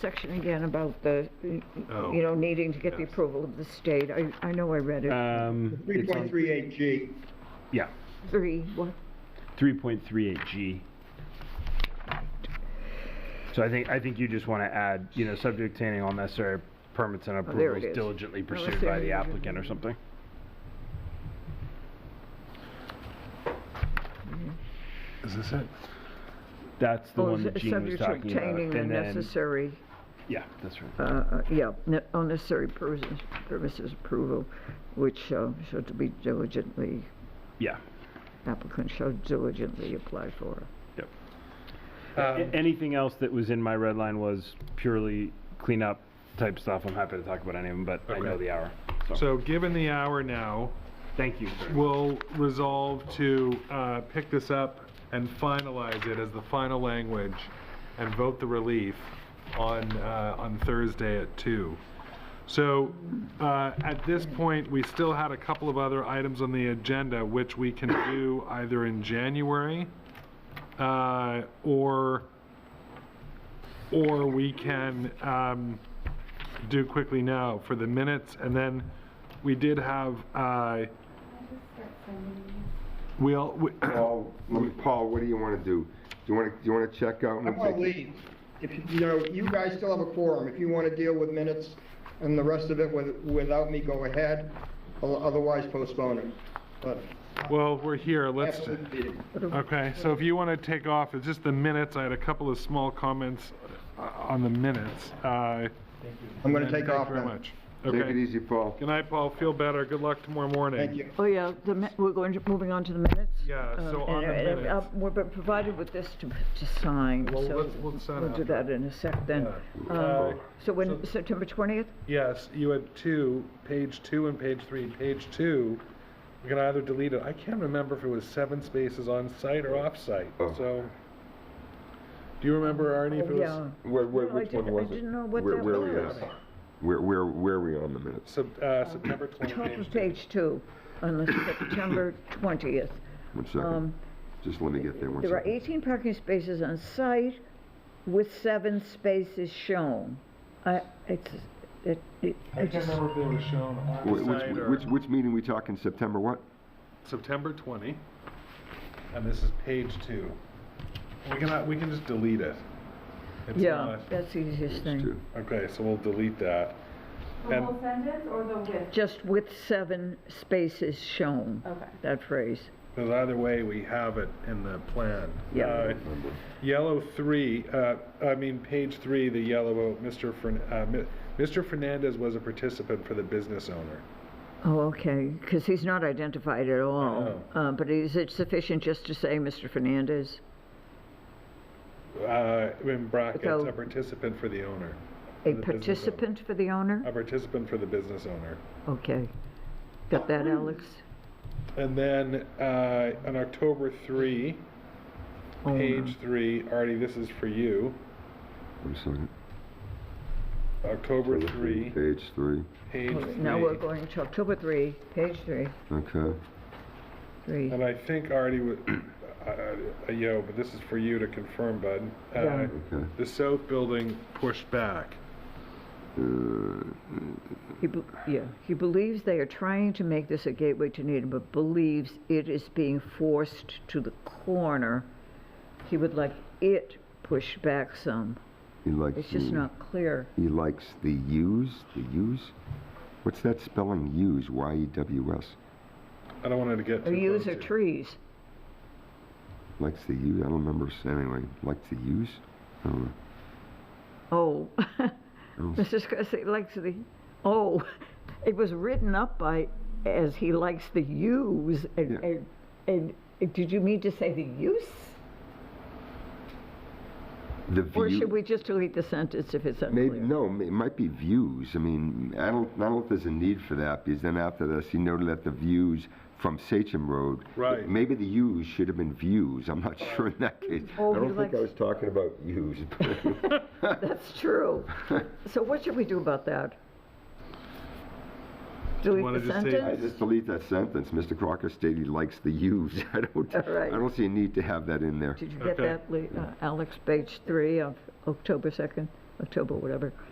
section again about the, you Oh. know, needing to get the Yes. approval of the state? I, I know I read it. Um, it's on- 3.38G. Yeah, Three, what? 3.38G. So I think, I think you just want to add, you know, subject to any all necessary permits and Oh, there it approvals is. diligently Unless pursued by the they're- applicant or something. Is this it? That's the Oh, one s- that Gene subject to was talking about. obtaining the And then, necessary, yeah, that's right. uh, uh, yeah, ne- unnecessary pers- premises approval, which uh, should be diligently, Yeah. applicant should diligently apply for. A- Anything else that was in my red line was purely cleanup type stuff. I'm happy to talk about any of them, but I know Okay. the hour. So given the hour now, Thank you, sir. we'll resolve to uh, pick this up and finalize it as the final language and vote the relief on, uh, on Thursday at two. So uh, at this point, we still had a couple of other items on the agenda, which we can do either in January uh, or, or we can um, do quickly now for the minutes. And then we did have uh, We'll, we- Paul, let me- Paul, what do you want to do? Do you want to, do you want to check out? and I want to take- leave. If, you- you know, you guys still have a quorum. If you want to deal with minutes and the rest of it with- without me, go ahead. O- Otherwise, postpone it. But well, we're here, let's, absolute meeting. okay, so if you want to take off, it's just the minutes, I had a couple of small comments uh, on the minutes. I'm I'm going to take off Thank you very then. much. Take it Okay, easy, Paul. good night, Paul, feel better, good luck tomorrow morning. Thank you. Oh, yeah, the, mi- we're going, to moving on to the minutes? Yeah, Um, so and- on the and, uh, minutes, We're been provided with this to, to sign, Well, so let's- let's sign we'll do after. that in a sec then. Yeah. Um, Okay. So when, September 20th? yes, you had two, page two and page three. Page two, we can either delete it, I can't remember if it was seven spaces on site or off site, Oh. so. Do you remember, Arnie, if it was? Yeah. Where, where, No, I which one didn't- I was it? didn't know what Where- that where we was. at? Where, where, where are we on the minutes? Sep- uh, September 20th. Top of page two, on the September 20th. Um, One second, just let me get there, one There are second. 18 parking spaces on site with seven spaces shown. I, it's, it, it- I I can't just, remember if it was shown on Wh- the site or. Which, which, which meeting we talking, September what? September 20, and this is page two. We can, we can just delete it. It's yeah, not- that's the easiest thing. Two. Okay, so we'll delete that. The And- whole sentence or the with? Just with seven spaces shown, Okay. that phrase. Because either way, we have it in the plan. Yeah. Uh, Yellow three, uh, I mean, page three, the yellow, Mr. Fern, uh, Mi- Mr. Fernandez was a participant for the business owner. Oh, okay, because he's not identified at all. know. Uh, But is it sufficient just to say Mr. Fernandez? Uh, in brackets, So- a participant for the owner. A the business owner. participant for the owner? A participant for the business owner. Okay. Got that, Alex? And then uh, on October 3, Owner. page 3, Artie, this is for you. One second. October 3, Page three, page 3. Oh, Now we're going to October 3, page 3, okay. 3. And I think Artie, wa- I- I- I- yo, but this is for you to confirm, bud. Uh, Yeah. Okay. The south building pushed back. Uh, He, bel- yeah, he believes they are trying to make this a gateway to Needham, but believes it is being forced to the corner. He would like it pushed back some. He likes. It's Hmm. just the- not clear. He likes the U's, the U's? What's that spelling, E U's, Y-E-W-S? I don't want it to get too Or use close or to- trees. Likes the U's, I don't remember, s- anyway, likes the U's? I don't know. Oh, Mrs. Cressy likes the, oh, it was written up by, as he likes the use, and, Yeah. and, and, uh, did you mean to say the use? The Or view- should we just delete the sentence if it's unclear? Maybe, no, m- it might be views. I mean, I don't, I don't know if there's a need for that, because then after this, he noted that the views from Sachem Road. Right. Maybe the U's should have been views, I'm not sure in that case. I Oh, he don't think likes- I was talking about U's. but- That's true. So what should we do about that? wanna Delete the just say- I sentence? just delete that sentence, Mr. Crocker stated he likes the U's. I don't, All I right. don't see a need to have that in there. Did you get Okay. that, Lee- uh, Alex, page three of October 2nd? October, whatever.